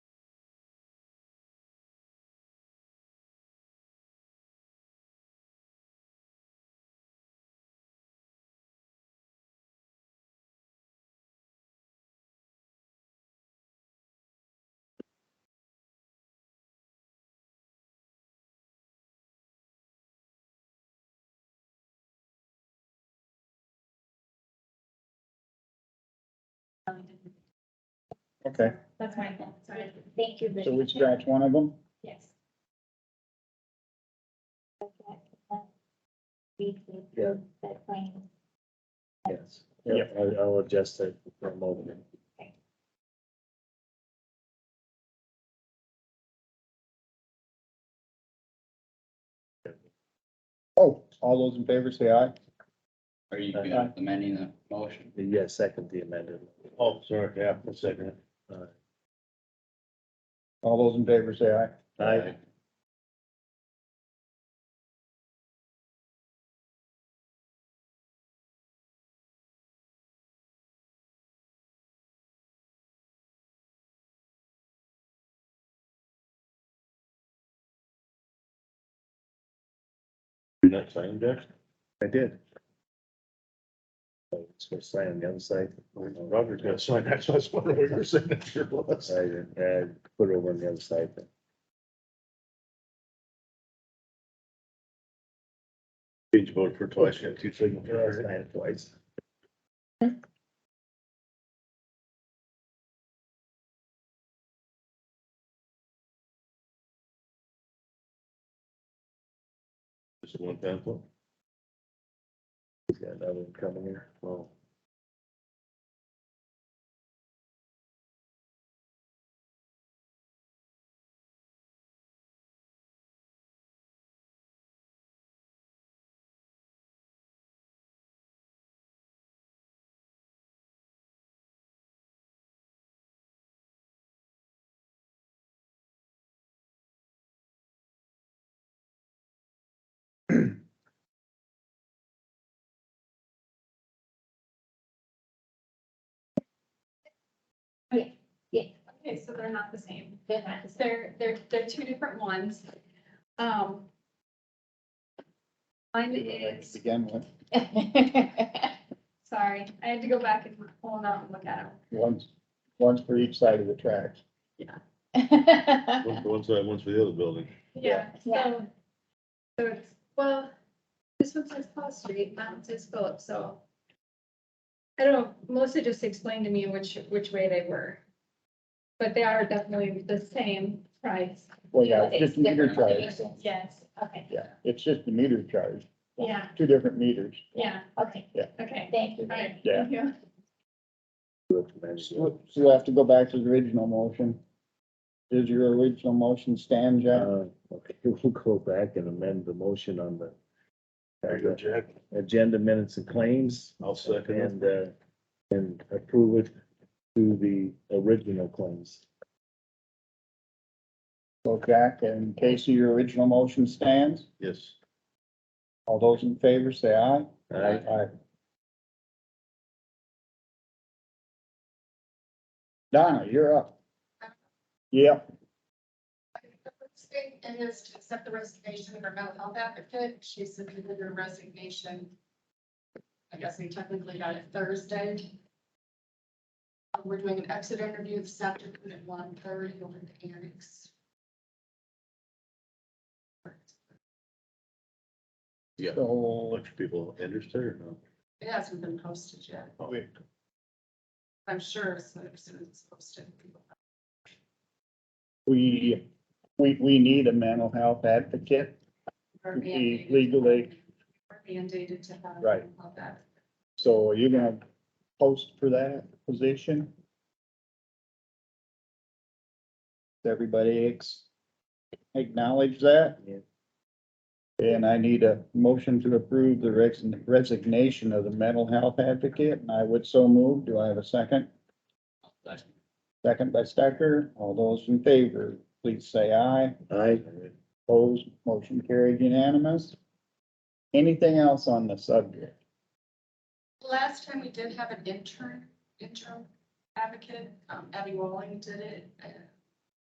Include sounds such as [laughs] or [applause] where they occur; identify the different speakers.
Speaker 1: Okay,
Speaker 2: That's my thought, sorry. Thank you.
Speaker 1: so
Speaker 2: Lydia.
Speaker 1: we scratch one of them?
Speaker 2: Yes. We could
Speaker 3: Yeah.
Speaker 2: prove that claim.
Speaker 3: Yes. Yeah, I, I will adjust it for a moment.
Speaker 1: Oh, all those in favor say aye.
Speaker 4: Are you implementing the motion?
Speaker 3: Yes, second the amended.
Speaker 5: Oh, sorry, yeah, for a second.
Speaker 1: All those in favor say aye.
Speaker 3: Aye.
Speaker 5: You're not signing that?
Speaker 3: I did. So It's for sign on the other side.
Speaker 5: Robert's got signed, that's why I was wondering where your signature was.
Speaker 3: I, I put it over on the other side.
Speaker 5: Change vote for twice, you got two signatures.
Speaker 3: I had it twice.
Speaker 5: Just one pencil.
Speaker 3: He's got another one coming here. Well,
Speaker 6: Okay, so they're not the same. They're, they're, they're two different ones. Um. Mine
Speaker 1: To
Speaker 6: is,
Speaker 1: Begin with,
Speaker 6: sorry, I had to go back and pull them out and look at
Speaker 1: one's, one's for each side of the tracks.
Speaker 5: One for one side, one's for the other building.
Speaker 6: them. Yeah,
Speaker 2: Yeah.
Speaker 6: so. So it's, well, this one says Paul Street, that one says Phillips, so. I don't, Melissa just explained to me which, which way they were. But they are definitely the same price.
Speaker 1: Well, yeah,
Speaker 2: But
Speaker 1: it's just
Speaker 2: it's
Speaker 1: meter
Speaker 2: different
Speaker 1: charge.
Speaker 2: locations.
Speaker 6: Yes, okay.
Speaker 1: Yeah, it's just the meter charge,
Speaker 6: Yeah,
Speaker 1: two different meters.
Speaker 6: yeah,
Speaker 2: Okay,
Speaker 6: okay.
Speaker 2: thank you.
Speaker 6: All right,
Speaker 1: Yeah.
Speaker 6: thank you.
Speaker 3: you have to manage it.
Speaker 1: So so we have to go back to the original motion. Does your original motion stand, Jack?
Speaker 3: Uh, Okay, [laughs] we'll go back and amend the motion on the
Speaker 5: There you go, Jack.
Speaker 3: agenda minutes and claims.
Speaker 5: I'll second it.
Speaker 3: And, uh, and approve it to the original claims.
Speaker 1: So Jack and Casey, your original motion stands.
Speaker 5: Yes.
Speaker 1: All those in favor say aye.
Speaker 3: Alright,
Speaker 1: Aye. Donna, you're up. Yep,
Speaker 7: State and is to accept the resignation of our mental health advocate. She submitted her resignation. I guess we technically got it Thursday. Uh, We're doing an exit interview this afternoon at one thirty over at the annex.
Speaker 5: Yeah. A
Speaker 1: so
Speaker 5: bunch of people interested or no?
Speaker 7: It hasn't been posted yet.
Speaker 1: Wait.
Speaker 7: I'm sure as soon as it's posted. people-
Speaker 1: we, we, we need a mental health advocate.
Speaker 7: are
Speaker 1: We
Speaker 7: mandated to-
Speaker 1: Mm-hmm. legally-
Speaker 7: are Mandated to have.
Speaker 1: Right.
Speaker 7: About that.
Speaker 1: So are you gonna post for that position? Does Everybody ex- acknowledge that?
Speaker 3: Yeah.
Speaker 1: And I need a motion to approve the res- resignation of the mental health advocate, and I would so move. Do I have a second? Second by Stecker. All those in favor, please say aye.
Speaker 3: aye.
Speaker 1: Opposed, motion carried unanimous. Anything else on the subject?
Speaker 7: Last time we did have an intern, interim advocate, um, Abby Walling did it, and